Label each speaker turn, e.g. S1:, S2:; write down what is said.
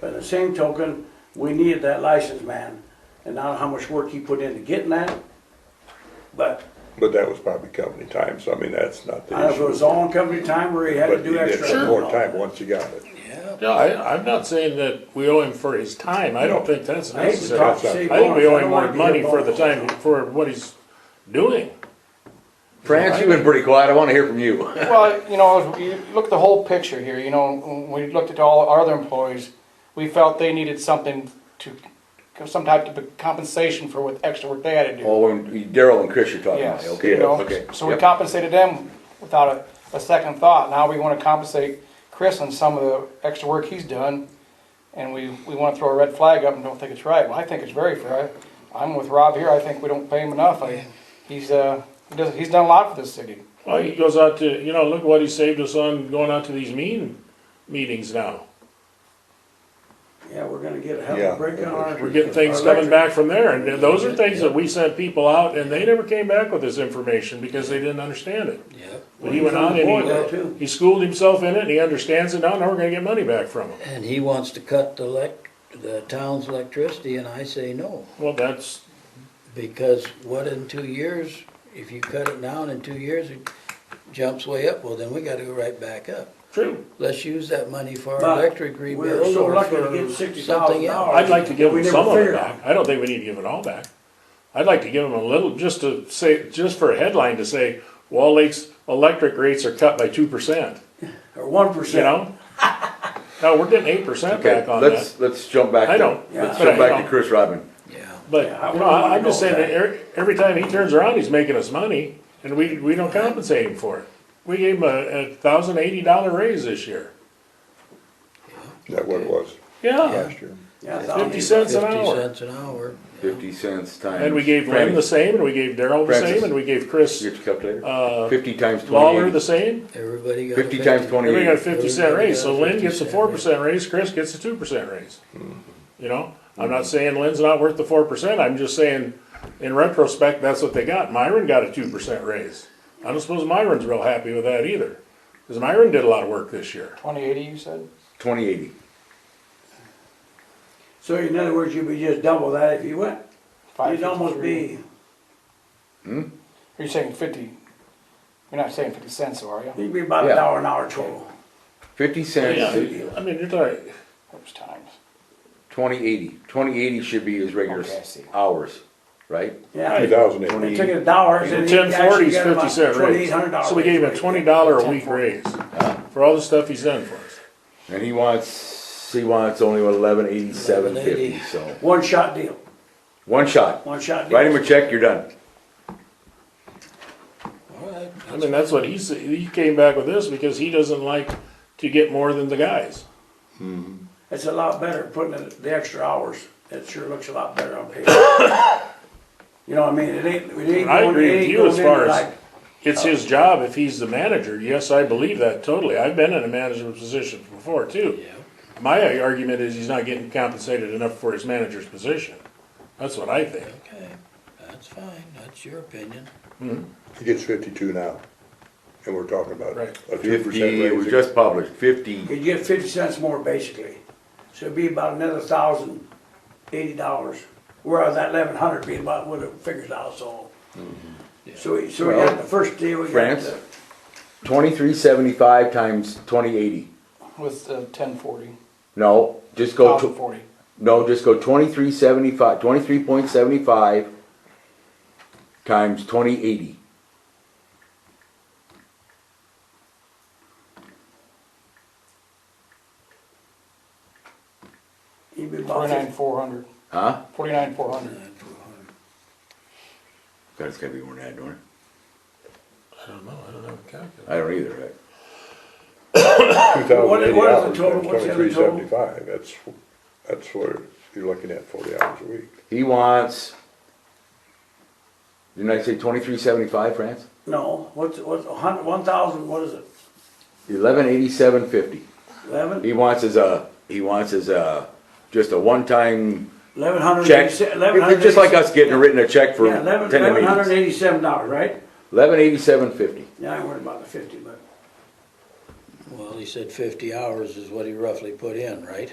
S1: But at the same token, we needed that license man, and I don't know how much work he put into getting that. But
S2: But that was probably company time, so I mean, that's not the
S1: I don't know if
S2: issue.
S1: it was all in company time where he had to
S2: But you
S1: do
S2: did
S1: extra.
S2: have more time once you got it.
S3: No, I, I'm not saying that we owe him for his time, I don't think that's
S1: I hate to talk to
S3: necessary.
S1: city
S3: I think we
S1: boss.
S3: owe
S1: don't
S3: him
S1: wanna
S3: more
S1: be a
S3: money for the
S1: boss.
S3: time, for what he's doing.
S4: France, you've been pretty quiet. I want to hear from you.
S5: Well, you know, you look at the whole picture here, you know, when we looked at all our other employees, we felt they needed something to, some type of compensation for what extra work they had to do.
S4: Oh, and Daryl and Chris, you're talking about.
S5: Yes,
S4: Okay,
S5: you know,
S4: okay.
S5: so we
S4: Yep.
S5: compensated them without a, a second thought. Now we wanna compensate Chris on some of the extra work he's done. And we, we wanna throw a red flag up and don't think it's right. Well, I think it's very fair. I- I'm with Rob here. I think we don't pay him enough. I, he's, uh, he does, he's done a lot for this city.
S3: Well, he goes out to, you know, look what he saved us on going out to these meeting, meetings now.
S1: Yeah, we're gonna get a hell of
S2: Yeah.
S1: a break on our.
S3: We're getting things
S1: our
S3: coming
S1: electric.
S3: back from there, and those are things that we sent people out, and they never came back with this information because they didn't understand it. But he went
S1: Well,
S3: out
S1: he's on the board now, too.
S3: and he, he schooled himself in it, and he understands it now, now we're gonna get money back from him.
S6: And he wants to cut the elec, the town's electricity, and I say no.
S3: Well, that's,
S6: Because what in two years, if you cut it down in two years, it jumps way up, well, then we gotta go right back up.
S3: true.
S6: Let's use that money for
S1: But
S6: our electric
S1: we're
S6: rebuild
S1: so
S6: or
S1: lucky to
S6: for
S1: get $60,000
S6: something else.
S3: I'd like to give
S1: We
S3: him
S1: never
S3: some of it
S1: figured
S3: back. I don't think we need to give it all back. I'd like to give him a little, just to say, just for a headline to say, Wall Lake's electric rates are cut by two percent,
S1: Or one
S3: you
S1: percent.
S3: know? No, we're getting eight percent
S4: Okay,
S3: back on that,
S4: let's, let's jump back
S3: I
S4: to,
S3: don't-
S4: let's
S1: yeah,
S4: jump
S3: but I
S4: back to
S3: don't.
S4: Chris Rodman.
S6: Yeah,
S3: but,
S1: Yeah, I
S3: no,
S1: wouldn't wanna
S3: I'm just
S1: know
S3: saying that every, every time he turns around, he's making us money, and we, we don't compensate him for it. We gave him a, a thousand eighty dollar raise this year,
S2: Is that what it was
S3: yeah,
S2: last year?
S1: Yeah,
S3: fifty cents an
S6: fifty
S3: hour.
S6: cents an hour.
S4: Fifty cents times.
S3: And we gave Lynn the same, and we gave Daryl the
S4: Francis.
S3: same, and we gave Chris
S4: Get your calculator.
S3: uh,
S4: Fifty times
S3: Lawler the
S4: twenty-eight.
S3: same,
S6: Everybody got a
S4: Fifty times
S3: Everybody got a
S4: twenty-eight.
S3: fifty cent raise, so
S6: Everybody
S3: Lynn
S6: got a
S3: gets a
S6: 50
S3: four
S6: cent
S3: percent raise, Chris gets a two percent raise.
S1: Mm-hmm.
S3: You know, I'm not saying Lynn's not worth the four percent, I'm just saying, in retrospect, that's what they got, Myron got a two percent raise. I don't suppose Myron's real happy with that either, cause Myron did a lot of work this year.
S5: Twenty eighty, you said?
S4: Twenty-eighty.
S1: So in other words, you'd be just double that if you went. You'd almost
S5: 553.
S1: be,
S5: Are you saying fifty? You're not saying fifty cents, though, are you?
S1: you'd be about a
S4: Yeah.
S1: dollar an hour total.
S4: Fifty cents,
S3: Yeah, I mean, you're talking,
S5: Those times.
S4: twenty-eighty. Twenty-eighty should be his regular
S5: Okay, I see.
S4: hours, right?
S1: Yeah.
S2: Two thousand
S1: When
S2: eighty.
S1: they took it dollars and he
S3: ten
S1: actually
S3: forty's
S1: got about
S3: fifty cent raise,
S1: twenty-eight hundred dollars.
S3: so we gave him a twenty dollar a week raise, for all the stuff he's done for us.
S4: And he wants, he wants only eleven eighty-seven fifty,
S6: 11.80.
S4: so,
S1: One shot deal,
S4: one shot.
S1: one shot deal.
S4: Write him a check, you're done.
S6: All right,
S3: I mean, that's what he said, he came back with this because he doesn't like to get more than the guys.
S1: It's a lot better putting in the extra hours. It sure looks a lot better on paper. You know what I mean? It ain't, it ain't.
S3: I
S1: going-
S3: agree
S1: it
S3: with
S1: ain't
S3: you
S1: going
S3: as
S1: in
S3: far as-
S1: like-
S3: It's his job if he's the manager. Yes, I believe that totally. I've been in a management position before too.
S6: yeah.
S3: My argument is he's not getting compensated enough for his manager's position. That's what I think.
S6: Okay, that's fine, that's your opinion.
S2: He gets fifty-two now, and we're talking about
S3: Right.
S2: a two percent
S4: Fifty, it was
S2: raise.
S4: just published, fifty.
S1: You'd get fifty cents more basically. So it'd be about another thousand, eighty dollars. Whereas that eleven hundred be about what it figures out, so. So we, so we got the first deal, we got
S4: France?
S1: the,
S4: Twenty-three seventy-five times twenty-eighty.
S5: With uh, ten forty,
S4: No, just go
S5: thousand
S4: to,
S5: forty.
S4: no, just go twenty-three seventy-five, twenty-three point seventy-five times twenty-eighty.
S1: he'd be about
S5: Forty-nine,
S1: fifty,
S5: four hundred.
S4: Huh?
S5: Forty-nine, four hundred.
S4: God, it's gotta be more than that, don't it?
S3: I don't know. I don't have a calculator.
S4: I don't either, right?
S2: Two thousand eighty
S1: What is
S2: hours
S1: the total?
S2: times
S1: What's the other
S2: twenty-three
S1: total?
S2: seventy-five, that's, that's where you're looking at forty hours a week.
S4: He wants, didn't I say twenty-three seventy-five, France?
S1: no, what's, what's, a hun, one thousand, what is it?
S4: Eleven eighty-seven fifty.
S1: Eleven,
S4: He wants his, uh, he wants his, uh, just a one-time
S1: eleven hundred
S4: check.
S1: eighty-seven, eleven hundred.
S4: It's Just like us getting written a check for
S1: Yeah, eleven,
S4: ten
S1: eleven hundred
S4: meetings.
S1: eighty-seven dollars, right?
S4: Eleven eighty-seven fifty.
S1: Yeah, I ain't worried about the fifty, but.
S6: Well, he said fifty hours is what he roughly put in, right?